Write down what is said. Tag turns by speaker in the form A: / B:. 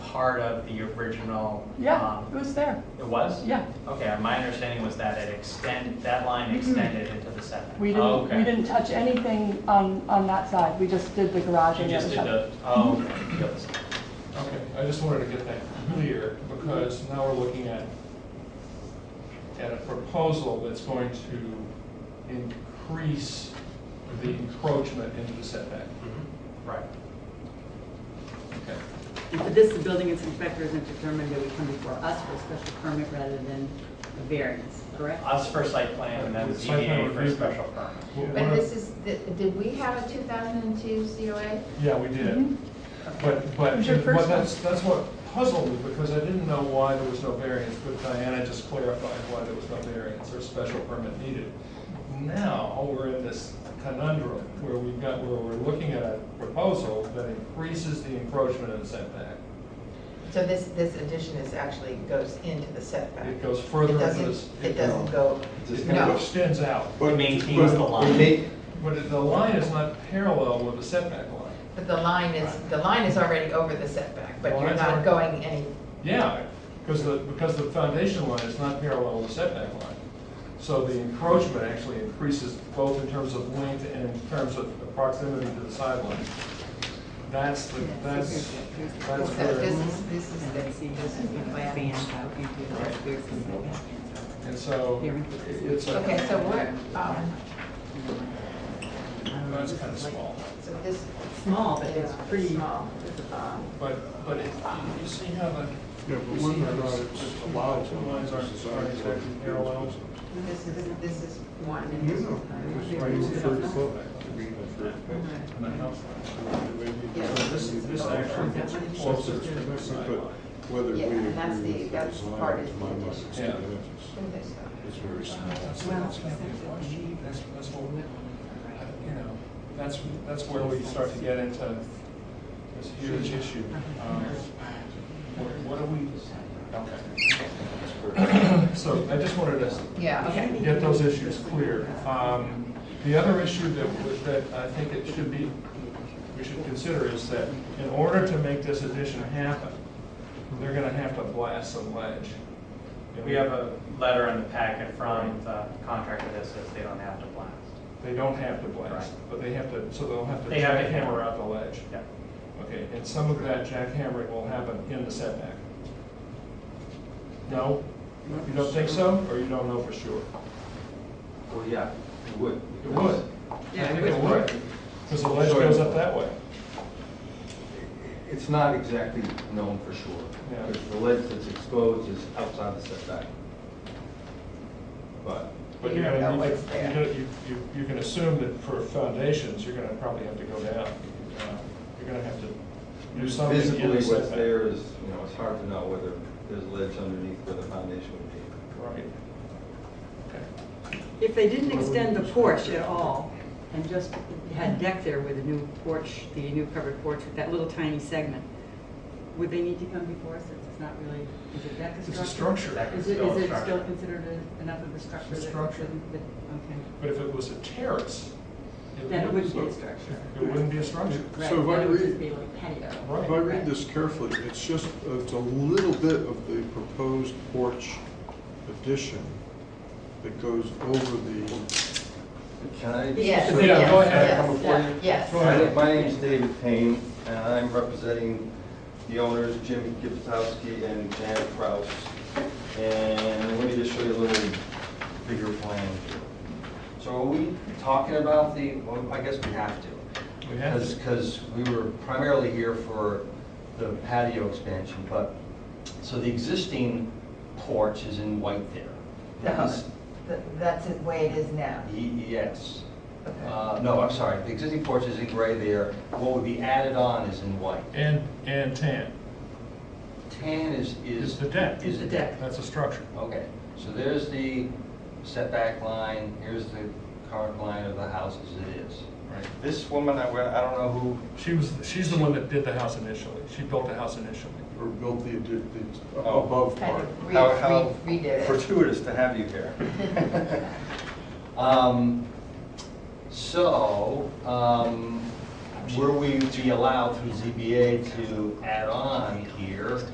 A: part of the original.
B: Yeah, it
A: um,
B: was there.
A: It was?
B: Yeah,
A: Okay, my understanding was that it extend, that line extended into the setback.
B: Mm-hmm. we
A: Oh,
B: didn't,
A: okay.
B: we didn't touch anything on, on that side. We just did the garage
A: You
B: and the
A: just
B: other
A: did
B: side.
A: the, oh, okay, the other side.
C: Okay, I just wanted to get that clear, because now we're looking at, at a proposal that's going to increase the encroachment into the setback.
A: Mhm, Right.
C: Okay.
D: And for this, the building inspector isn't determined that we come before us for a special permit rather than a variance, correct?
A: Us for site plan and then
C: With site plan
A: ZBA for
C: review.
A: special permit.
C: What-
E: But
C: what-
E: this is, the- did we have a 2002 COA?
C: Yeah, we did.
B: Mhm.
C: But,
B: It
C: but,
B: was your
C: but
B: first
C: that's, that's what puzzled me, because I didn't know why there was no variance, but Diana just clarified why there was no variance or special permit needed. Now, we're in this conundrum where we've got, where we're looking at a proposal that increases the encroachment and setback.
F: So this, this addition is actually goes into the setback?
C: It goes further
F: It
C: into
F: doesn't-
C: this-
F: It doesn't go,
C: It
F: No.
C: kind of extends out,
A: It maintains the line.
C: but it- the line is not parallel with the setback line.
F: but the line is, the line is already over the setback, but
C: The
F: you're
C: line's
F: not
C: already-
F: going any,
C: Yeah, because the, because the foundation line is not parallel to the setback line. So the encroachment actually increases both in terms of length and in terms of the proximity to the sideline. That's, the that's, that's
F: so this
C: where,
F: is, this is,
D: And
F: the-
D: then see,
F: this is the plan.
C: and so it's a.
F: Okay, so what, um,
C: That's kind of small,
F: so this,
D: Small, but it's
F: Yeah,
D: pretty,
F: small.
D: um,
C: but, but it, you see how the.
G: Yeah,
C: you
G: but
C: see
G: whether
C: how
G: or not
C: those-
G: it's
C: those
G: allowed.
C: Two lines aren't, aren't exactly parallel.
F: this is, this is one. and
G: No,
F: this is
G: no,
F: one.
G: it's right, it's very close. I mean, it's very close.
C: And the house
F: Yeah.
C: line. So this, this actually gets closer to the
G: But
C: sideline.
G: whether we
F: Yeah, and that's the-
G: agree with
F: that's
G: those
F: part
G: lines,
F: of
G: my
F: the
G: mind
F: addition.
G: is
C: Yeah.
G: two inches.
F: Who this, uh,
G: It's very small.
C: That's,
D: Well,
C: that's gonna be a question. That's, that's what, you know, that's, that's where we start to get into this huge issue. Um, What what do we, okay.
G: It's very-
C: So I just wanted to
F: Yeah, okay.
C: get those issues clear. Um, The other issue that, w- that I think it should be, we should consider is that in order to make this addition happen, they're gonna have to blast some ledge. And
A: We have a letter in the packet from the contractor that says they don't have to blast.
C: They don't have to blast,
A: Right.
C: but they have to, so they'll have to
A: They have to
C: jackhammer
A: hammer.
C: out the ledge.
A: Yeah.
C: Okay, and some of that jackhammering will happen in the setback. No? You don't think so, or you don't know for sure?
H: Well, yeah, it would.
C: It would.
D: Yeah,
C: I
D: it
C: think it
H: would.
C: would, because the ledge goes up that way.
H: It's not exactly known for sure,
C: Yeah.
H: because the ledge that's exposed is outside the setback. But,
C: But you're
F: Yeah, that
C: gonna,
F: light's
C: you're
F: there.
C: gonna- you, you, you can assume that for foundations, you're gonna probably have to go down. Uh, You're gonna have to do something in the setback.
H: visibly what's there is, you know, it's hard to know whether there's ledge underneath where the foundation would be.
C: Right. Okay.
D: if they didn't extend the porch at all and just had deck there with a new porch, the new covered porch with that little tiny segment, would they need to come before us since it's not really, is it deck
C: It's a structure,
A: That is
D: Is it,
A: still a
D: is it
A: structure.
D: still considered a- enough of a structure?
C: It's a
D: that-
C: structure.
D: that- Okay,
C: but if it was a terrace.
D: then it wouldn't be a
C: look-
D: structure.
C: It wouldn't be a structure.
D: Right,
G: So if I
D: that would just
G: read-
D: be like patio.
C: Right.
G: If I read this carefully, it's just, it's a little bit of the proposed porch addition that goes over the,
H: Can I?
F: Yes,
C: Yeah,
F: yes,
C: go ahead.
F: yes,
C: Come
H: before you.
F: Yes.
C: Go
H: My
C: ahead.
H: name- My name's David Payne, and I'm representing the owners, Jim Gibsowski and Janet Kraus. And let me just show you a little bigger plan here. So are we talking about the, well, I guess we have to.
C: We have to.
H: Because we were primarily here for the patio expansion, but, so the existing porch is in white there. That is-
F: Th- That's the way it is now.
H: Ye- Yes.
F: Okay.
H: E, Uh, No, I'm sorry, the existing porch is in gray there, what would be added on is in white.
C: And, and tan.
H: Tan is, is.
C: Is the deck.
H: Is the deck.
C: That's a structure.
H: Okay, so there's the setback line, here's the current line of the house as it is.
C: Right.
H: This woman, I I don't know who,
C: She was, she's the one that did the house initially. She built the house initially.
G: or built the, addi- the
H: Oh.
G: above
F: Kind
G: part.
F: of re-
H: how, how
F: re- redid it.
H: fortuitous to have you here. Um, So, um, were we to be allowed through ZBA to add on here,